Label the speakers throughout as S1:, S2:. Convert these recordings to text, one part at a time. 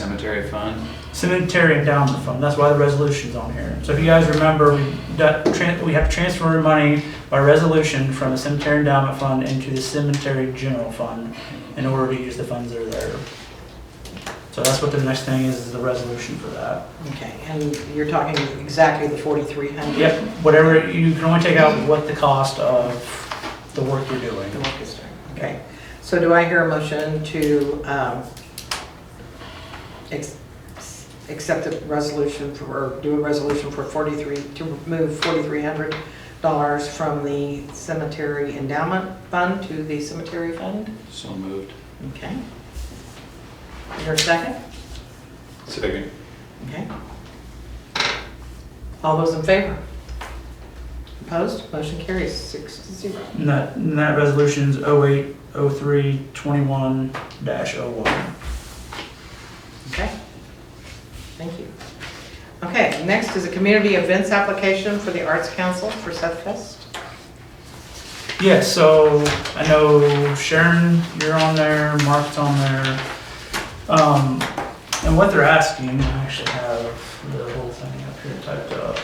S1: cemetery fund.
S2: Cemetery endowment fund, that's why the resolution's on here. So if you guys remember, we, got tran- we have to transfer money by resolution from the cemetery endowment fund into the cemetery general fund in order to use the funds that are there. So that's what the next thing is, is the resolution for that.
S3: Okay, and you're talking exactly the 4,300?
S2: Yep, whatever, you can only take out what the cost of the work you're doing.
S3: The work is done, okay. So do I hear a motion to um, ex- accept a resolution for, or do a resolution for 43, to remove $4,300 from the cemetery endowment fund to the cemetery fund?
S1: So moved.
S3: Okay. Is there a second?
S1: Second.
S3: Okay. All those in favor? Opposed? Motion carries six to zero.
S2: And that, and that resolution's 08, 03, 21 dash 01.
S3: Okay. Thank you. Okay, next is a community events application for the Arts Council for Seth Fest.
S2: Yeah, so I know Sharon, you're on there, Mark's on there. Um, and what they're asking, I actually have the whole thing up here typed up.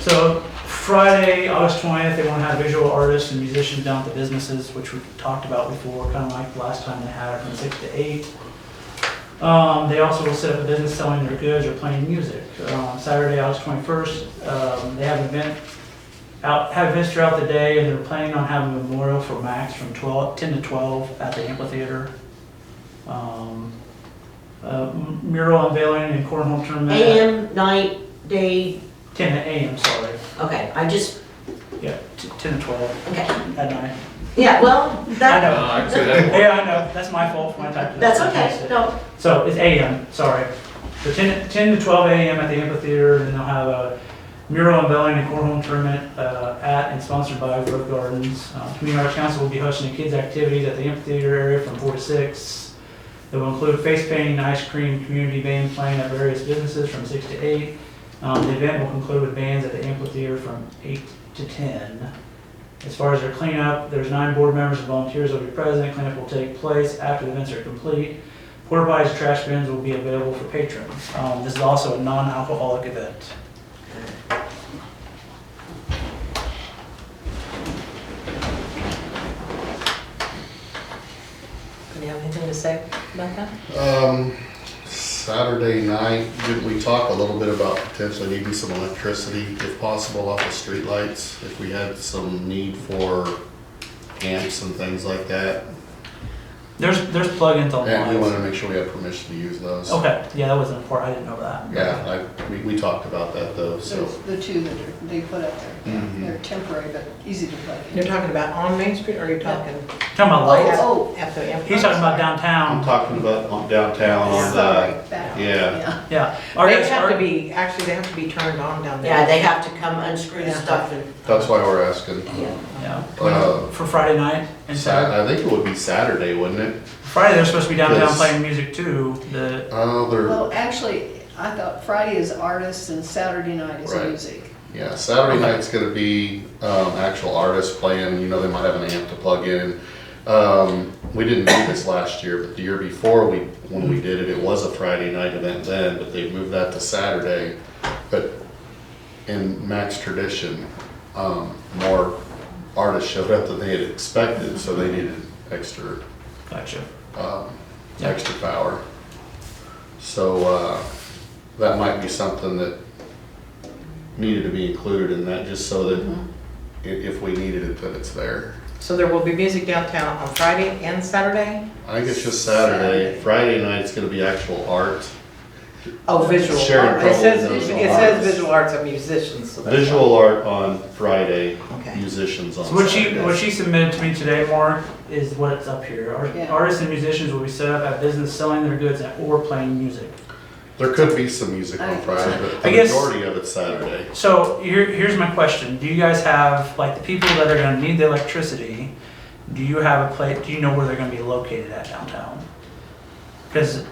S2: So Friday, August twentieth, they want to have visual artists and musicians down at the businesses, which we talked about before, kind of like the last time they had it from six to eight. Um, they also will set up a business selling their goods or playing music. Um, Saturday, August twenty-first, um, they have an event out, have events throughout the day, and they're planning on having a memorial for Max from 12, 10 to 12 at the amphitheater. Um, uh, mural unveiling and cornhole tournament at
S4: AM, night, day,
S2: 10 to AM, sorry.
S4: okay, I just,
S2: Yeah, t- 10 to 12
S4: okay.
S2: at night.
S4: Yeah, well,
S2: I
S4: that,
S2: know.
S1: I see that.
S2: Yeah, I know. That's my fault for my type.
S4: that's okay, no,
S2: So it's AM, sorry. So 10, 10 to 12 AM at the amphitheater, and they'll have a mural unveiling and cornhole tournament uh, at and sponsored by Grove Gardens. Uh, Community Arts Council will be hosting a kids' activities at the amphitheater area from 4 to 6. It will include face painting, ice cream, community band playing at various businesses from 6 to 8. Um, The event will conclude with bands at the amphitheater from 8 to 10. As far as their cleanup, there's nine board members and volunteers will be present. Cleanup will take place after the events are complete. Porta potties, trash bins will be available for patrons. Um, this is also a non-alcoholic event.
S3: Do you have anything to say about that?
S5: Um, Saturday night, didn't we talk a little bit about potentially needing some electricity if possible off the streetlights? If we had some need for amps and things like that?
S2: There's, there's plugins on
S5: And we wanted
S2: lines.
S5: to make sure we had permission to use those.
S2: Okay, yeah, that wasn't important, I didn't know that.
S5: Yeah, I, we, we talked about that though, so.
S6: There's the two that are- they put up there.
S5: Mhm.
S6: They're temporary, but easy to plug
S3: You're
S6: in.
S3: talking about on Main Street, or are you talking
S2: Talking about lights,
S6: Oh,
S3: at the amphitheater?
S2: he's talking about
S5: I'm
S2: downtown,
S5: talking about on downtown
S6: oh,
S5: on uh, the,
S6: sorry, back.
S5: yeah.
S2: yeah. Our
S3: They
S2: guys-
S3: have
S2: our-
S3: to be, actually, they have to be turned on down there.
S4: yeah, they have to come unscrew the
S3: Yeah.
S4: stuff and,
S5: that's why we're asking.
S4: yeah.
S2: Yeah,
S5: Uh,
S2: for Friday night and
S5: Sat,
S2: Saturday.
S5: I think it would be Saturday, wouldn't it?
S2: Friday, they're supposed to be downtown
S5: Yes.
S2: playing music too, the,
S5: Oh, they're,
S6: Well, actually, I thought Friday is artists and Saturday night is
S5: Right.
S6: music.
S5: Yeah, Saturday night's gonna be um, actual artists playing. You know, they might have an amp to plug in. Um, we didn't do this last year, but the year before we when we did it, it was a Friday night event then, but they moved that to Saturday. But in Max tradition, um, more artists showed up than they had expected, so they needed extra
S2: gotcha.
S5: um,
S2: Yeah.
S5: extra power. So uh, that might be something that needed to be included in that, just so that
S6: Mm-hmm.
S5: i- if we needed it, that it's there.
S3: So there will be music downtown on Friday and Saturday?
S5: I think it's just Saturday.
S6: Saturday.
S5: Friday night's gonna be actual art.
S3: Oh, visual
S5: Sharon
S3: art. It says,
S5: probably
S3: it
S5: knows
S3: says
S5: arts.
S3: visual arts and musicians, so that's why.
S5: Visual art on Friday,
S3: Okay.
S5: musicians on
S2: So what she,
S5: Saturday.
S2: what she submitted to me today, Mark, is what's up here. Ar-
S6: Yeah.
S2: Artists and musicians will be set up at business selling their goods at- or playing music.
S5: There could be some music on
S6: I-
S5: Friday, but
S2: I
S5: the
S2: guess-
S5: majority of it's Saturday.
S2: So here, here's my question. Do you guys have, like, the people that are gonna need the electricity, do you have a place, do you know where they're gonna be located at downtown? Because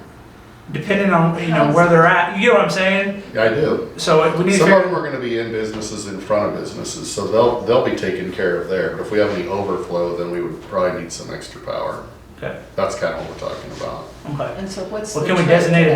S2: depending on, you know, where they're at, you know what I'm saying?
S5: I do.
S2: So it- we need to
S5: Some of them
S2: figure,
S5: are gonna be in businesses in front of businesses, so they'll, they'll be taken care of there. But if we have any overflow, then we would probably need some extra power.
S2: Okay,
S5: That's kind of what we're talking about.
S2: okay.
S6: And so what's the?
S2: Well, can we
S6: trade?
S2: designate a